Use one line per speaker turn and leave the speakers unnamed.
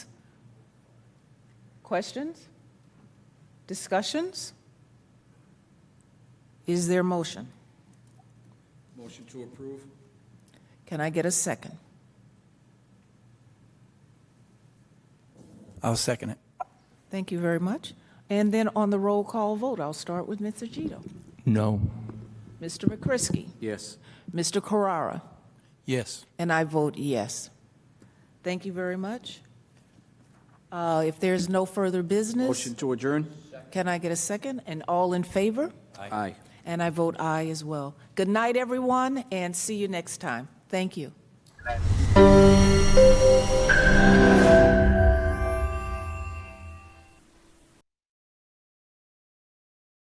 Questions? Discussions? Is there a motion?
Motion to approve?
Can I get a second?
I'll second it.
Thank you very much. And then on the roll call vote, I'll start with Mr. Gito.
No.
Mr. McCrisky?
Yes.
Mr. Carrara?
Yes.
And I vote yes. Thank you very much. Uh, If there's no further business,
Motion to adjourn?
can I get a second? And all in favor?
Aye.
And I vote aye as well. Good night, everyone, and see you next time. Thank you.